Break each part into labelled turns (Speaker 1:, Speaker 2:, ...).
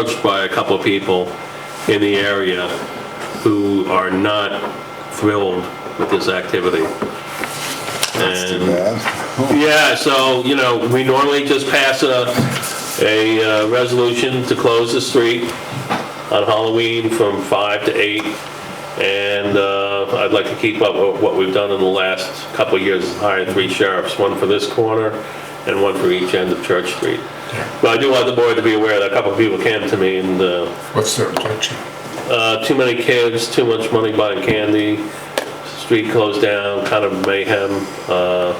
Speaker 1: approached by a couple of people in the area who are not thrilled with this activity. And,
Speaker 2: Yeah.
Speaker 1: yeah, so, you know, we normally just pass a, a uh, resolution to close the street on Halloween from five to eight, And uh, I'd like to keep up with what we've done in the last couple of years, is hire three sheriffs, one for this corner and one for each end of Church Street. But I do want the board to be aware that a couple of people came to me and uh,
Speaker 3: What's their objection?
Speaker 1: uh, too many kids, too much money buying candy, street closed down, kind of mayhem. uh,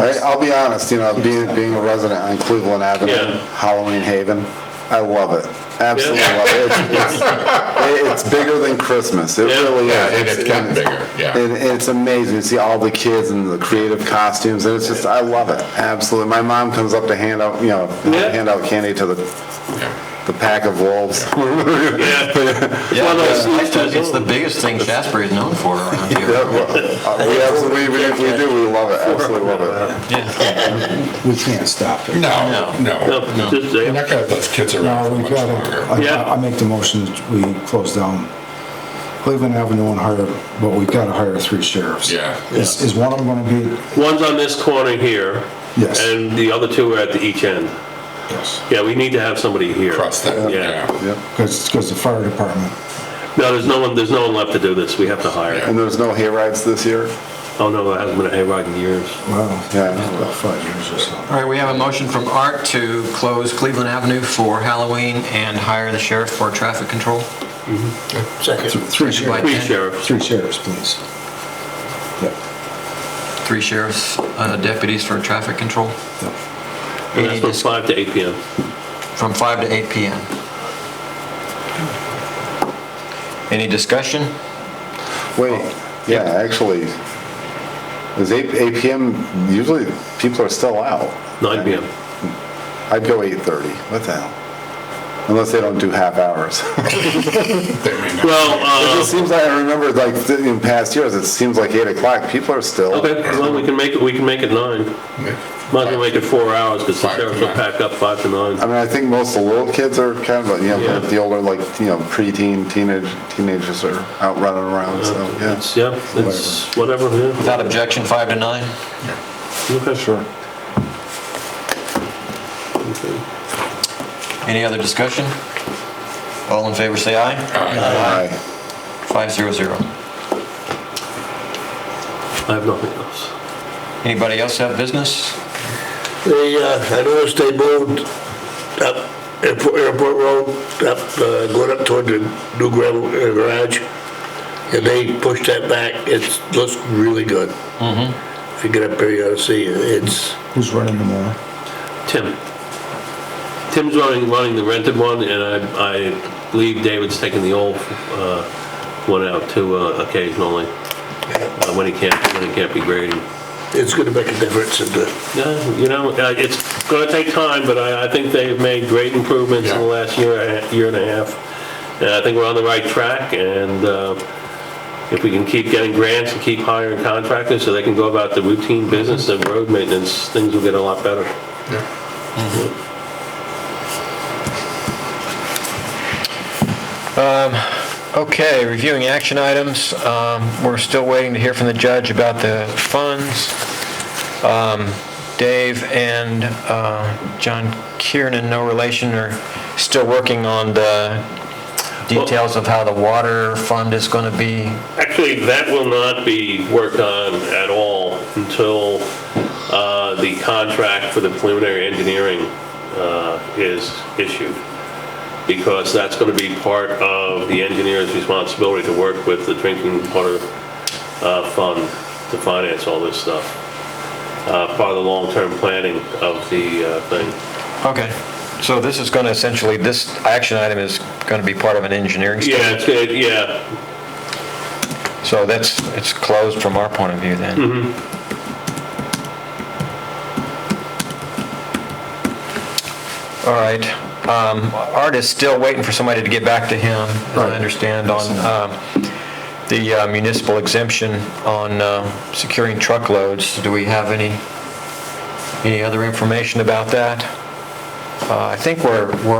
Speaker 2: I, I'll be honest, you know, being, being a resident on Cleveland Avenue,
Speaker 1: Yeah.
Speaker 2: Halloween Haven, I love it. Absolutely
Speaker 1: Yeah.
Speaker 2: love it. It's- It's, it's bigger than Christmas. It
Speaker 1: Yeah.
Speaker 2: really is.
Speaker 3: Yeah, and it's gotten
Speaker 2: And-
Speaker 3: bigger, yeah.
Speaker 2: And it's amazing to see all the kids and the creative costumes, and it's just, I love it, absolutely. My mom comes up to hand out, you know,
Speaker 1: Yeah.
Speaker 2: hand out candy to the,
Speaker 3: yeah.
Speaker 2: the pack of wolves.
Speaker 1: Yeah.
Speaker 4: Yeah,
Speaker 1: Well, no,
Speaker 4: yeah,
Speaker 1: it's-
Speaker 4: it's- It's the biggest thing Shasbury is known for around
Speaker 2: Yeah,
Speaker 4: here.
Speaker 2: well, uh, We absolutely, we we do, we love it, absolutely love it.
Speaker 5: We can't stop it.
Speaker 3: No, no.
Speaker 1: No, just-
Speaker 3: You're not gonna have those kids around
Speaker 5: No,
Speaker 3: for
Speaker 5: we
Speaker 3: much
Speaker 5: gotta,
Speaker 3: longer.
Speaker 1: Yeah.
Speaker 5: I- I make the motion that we close down Cleveland Avenue and hire, but we gotta hire three sheriffs.
Speaker 3: Yeah.
Speaker 5: Is, is one of them gonna be,
Speaker 1: One's on this corner here.
Speaker 5: Yes.
Speaker 1: And the other two are at the each end.
Speaker 5: yes,
Speaker 1: Yeah, we need to have somebody here.
Speaker 3: Across that,
Speaker 1: Yeah.
Speaker 3: yeah.
Speaker 2: Yep.
Speaker 5: because, because the fire department,
Speaker 1: No, there's no one, there's no one left to do this. We have to hire.
Speaker 2: And there's no hay rides this year?
Speaker 1: Oh, no, there hasn't been a hayride in years.
Speaker 5: wow,
Speaker 2: Yeah.
Speaker 5: about five years or so.
Speaker 4: All right, we have a motion from Art to close Cleveland Avenue for Halloween and hire the sheriff for traffic control.
Speaker 5: Th- Three sheriffs,
Speaker 1: Three sheriffs.
Speaker 5: three sheriffs, please. Yep,
Speaker 4: Three sheriffs, uh, deputies for traffic control
Speaker 5: yep.
Speaker 1: And that's from 5 to 8 PM.
Speaker 4: from 5 to 8 PM. Any discussion?
Speaker 2: Wait, yeah, actually, is eight, eight PM, usually people are still out.
Speaker 1: 9 PM.
Speaker 2: I'd go eight thirty, what the hell? Unless they don't do half hours.
Speaker 3: They may not.
Speaker 1: Well, uh,
Speaker 2: It just seems like, I remember like th- in past years, it seems like eight o'clock, people are still.
Speaker 1: okay, well, we can make it, we can make it 9. Might as well make it four hours because the
Speaker 3: Five to
Speaker 1: sheriffs will
Speaker 3: nine.
Speaker 1: pack up 5 to 9.
Speaker 2: I mean, I think most of the little kids are kind of, you
Speaker 1: Yeah.
Speaker 2: know, the older, like, you know, preteen, teenage, teenagers are out running around, so, yeah.
Speaker 1: It's, yeah, it's whatever, yeah.
Speaker 4: Without objection, 5 to 9?
Speaker 1: Okay,
Speaker 2: Sure.
Speaker 4: Any other discussion? All in favor, say aye.
Speaker 3: Aye.
Speaker 2: Aye.
Speaker 4: 500.
Speaker 1: I have nothing else.
Speaker 4: Anybody else have business?
Speaker 6: They, uh, I noticed they moved up Airport, Airport Road, up, uh, going up toward the new gravel uh, garage. And they pushed that back. It looks really good. Mm-hmm. If you get up there, you ought to see it. It's,
Speaker 5: Who's running the mower?
Speaker 1: Tim. Tim's running, running the rented one, and I, I believe David's taking the old, uh, one out too uh, occasionally, uh, when he can't, when he can't be grading.
Speaker 6: it's gonna make a difference in the
Speaker 1: Yeah, you know, uh, it's gonna take time, but I, I think they've made great improvements in the
Speaker 3: Yeah.
Speaker 1: last year, and a- year and a half. And I think we're on the right track, and, uh, if we can keep getting grants and keep hiring contractors so they can go about the routine business of road maintenance, things will get a lot better.
Speaker 3: Yeah.
Speaker 4: Okay, reviewing action items. Um, We're still waiting to hear from the judge about the funds. Um, Dave and uh, John Kiernan, no relation, are still working on the details of how the water fund is going to be.
Speaker 1: Actually, that will not be worked on at all until uh, the contract for the preliminary engineering uh, is issued, because that's going to be part of the engineer's responsibility to work with the drinking water uh, fund to finance all this stuff, Uh, part of the long-term planning of the uh, thing.
Speaker 4: Okay. So this is going to essentially, this action item is going to be part of an engineering study?
Speaker 1: Yeah, it's good, yeah,
Speaker 4: So that's, it's closed from our point of view then? All right. Um, Art is still waiting for somebody to get back to him, as I understand, on um, the uh, municipal exemption on um, securing truckloads. Do we have any, any other information about that? Uh, I think we're, we're